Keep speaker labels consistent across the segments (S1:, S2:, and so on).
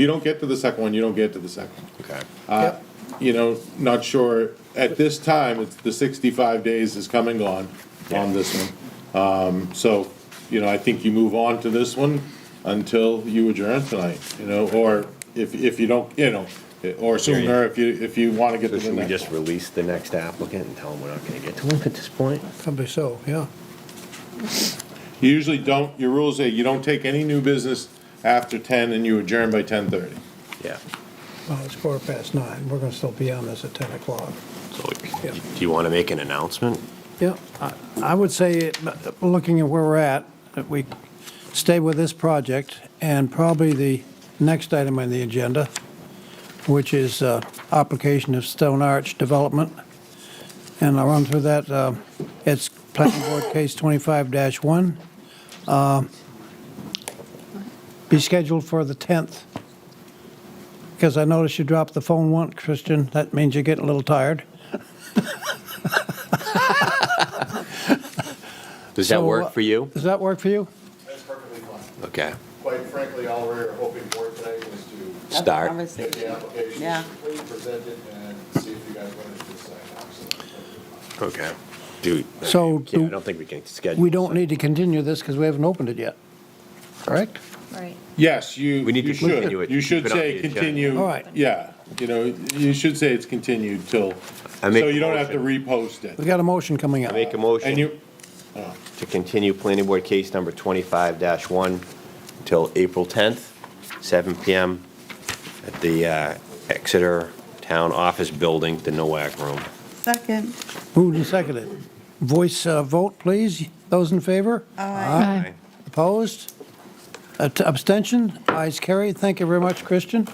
S1: You don't get to the second one, you don't get to the second. one.
S2: Okay.
S3: Yep.
S1: You know, not sure, at this time, it's, the sixty-five days is come and gone on this one. Um, so, you know, I think you move on to this one until you adjourn tonight, you know, or if, if you don't, you know, or sooner if you, if you wanna get to
S2: So
S1: the
S2: should we
S1: next
S2: just
S1: one.
S2: release the next applicant and tell them we're not gonna get to him at this point?
S3: Probably so, "Oh, yeah.
S1: You usually don't, your rules say you don't take any new business after ten and you adjourn by ten-thirty.
S2: Yeah.
S3: Well, it's quarter past nine. We're gonna still be on this at ten o'clock.
S2: So,
S3: Yeah.
S2: do you wanna make an announcement?
S3: Yeah, I- I would say, uh, looking at where we're at, that we stay with this project and probably the next item on the agenda, which is uh, application of Stone Arch Development. And I'll run through that. uh, It's Planning Board Case 25-1. uh, Be scheduled for the 10th. Because I noticed you dropped the phone once, Christian. That means you're getting a little tired.
S2: Does that
S3: So,
S2: work for you?
S3: Does that work for you?
S1: That's perfectly fine.
S2: Okay.
S1: Quite frankly, all we were hoping for today was to
S4: That's a
S2: Start.
S1: Get
S4: conversation.
S1: the application
S4: Yeah.
S1: completely presented and see if you guys wanted to sign off. so.
S2: Okay. Dude.
S3: So
S2: Yeah, I
S3: do-
S2: don't think we can schedule.
S3: We don't need to continue this because we haven't opened it yet, correct?
S5: Right.
S1: Yes, you,
S2: We need
S1: you
S2: to continue
S1: should,
S2: it,
S1: you
S2: keep
S1: should
S2: it on
S1: say
S2: the agenda.
S1: continue.
S3: All right.
S1: Yeah, you know, you should say it's continued till,
S2: I
S1: so
S2: make a
S1: you don't have to repost
S3: We
S1: it.
S3: got a motion coming up.
S2: Make a
S1: And
S2: motion
S1: you,
S2: to continue planning board case number twenty-five one till April tenth, seven PM at the uh, Exeter Town Office Building, the NOAC Room.
S4: Second.
S3: Moved and seconded. Voice uh, vote, please. Those in favor? Aye. Opposed? Abst- Abstention? Ayes carried. Thank you very much, Christian.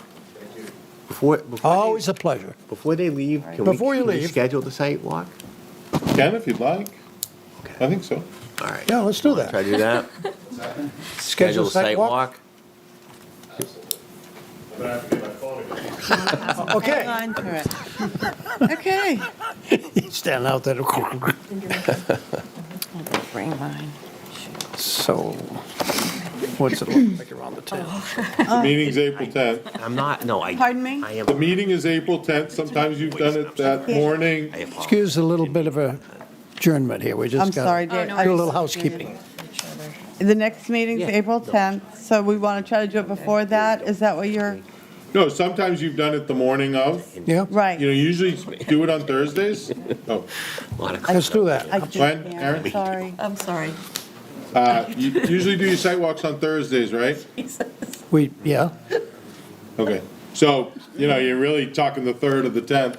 S2: Before, before,
S3: Always
S2: they-
S3: a pleasure.
S2: before they leave, can we,
S3: Before you
S2: can we
S3: leave.
S2: schedule the site walk?
S1: can if you'd like, I think so.
S2: All right.
S3: Yeah, let's do
S2: Try
S3: that.
S2: to do that? Schedule
S3: Schedule a
S2: a site walk?
S1: I'm gonna have to get my phone again.
S3: Okay.
S4: Hold on to it. Okay.
S3: Stand out there.
S4: Bring mine.
S3: So, what's it look like around the tent?
S1: The meeting's April tenth.
S2: I'm not, no, I.
S4: Pardon me?
S2: I am.
S1: The meeting is April tenth. Sometimes you've done it that morning.
S2: I apologize.
S3: Excuse a little bit of a adjournment here. We
S4: I'm
S3: just
S4: sorry,
S3: got to
S4: Dave.
S3: do
S4: Oh, I
S3: a little
S4: just-
S3: housekeeping.
S4: The next meeting's April 10th, so we want to try to do it before that? Is that what you're,
S1: No, sometimes you've done it the morning of.
S3: Yeah?
S4: right?
S1: You know, usually do it on Thursdays. Oh,
S2: A lot of-
S3: Let's do that.
S4: I just
S1: Gwen,
S4: can't,
S1: Aaron?
S4: Sorry.
S5: I'm sorry.
S1: uh, you usually do your site walks on Thursdays, right?
S3: We, yeah?
S1: Okay, so, you know, you're really talking the third of the tenth.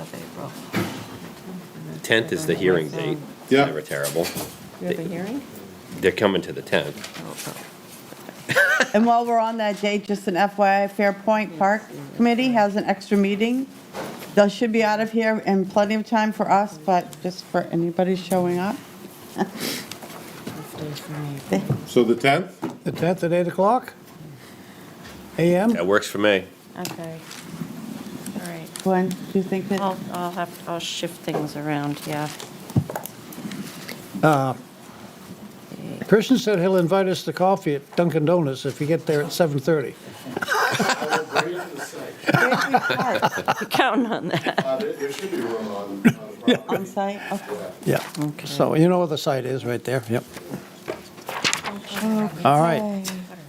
S5: Of April.
S2: 10th is the hearing date. It's
S1: Yeah.
S2: Never terrible.
S5: You have a hearing?
S2: They're coming to the 10th.
S4: And while we're on that date, just an FYI, Fairpoint Park Committee has an extra meeting. They should be out of here in plenty of time for us, but just for anybody showing up.
S1: So the tenth,
S3: The 10th at 8 o'clock? AM?
S2: That works for me.
S5: Okay. All right.
S4: Gwen, do you think that?
S5: I'll, I'll have, I'll shift things around, yeah.
S3: Christian said he'll invite us to coffee at Dunkin' Donuts if you get there at 7:30.
S5: You're Counting on that.
S1: Uh, There should be room on, on
S4: On site? Okay.
S3: Yeah. So you know where the site is, right there, yep. All right,
S4: Okay,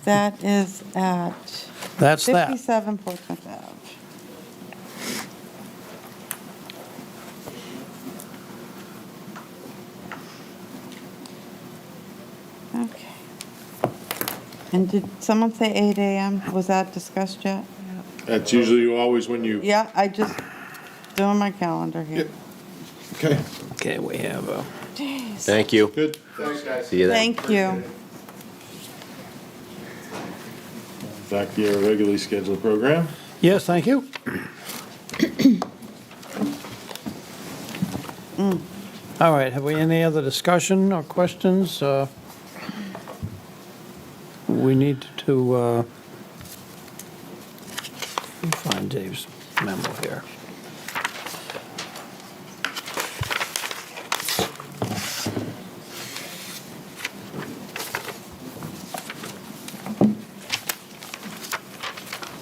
S4: That is at
S3: that's that.
S4: 57 Portsmouth Ave. Okay. And did someone say 8 AM? Was that discussed yet?
S1: That's usually always when you,
S4: Yeah, I just doing my calendar here.
S1: okay,
S3: Okay, we have a...
S2: Thank you.
S1: good. Thanks, guys.
S2: See you then.
S4: Thank you.
S1: Back to your regularly scheduled program.
S3: Yes, thank you. All right, have we any other discussion or questions? Uh, We need to, uh, let me find Dave's memo here.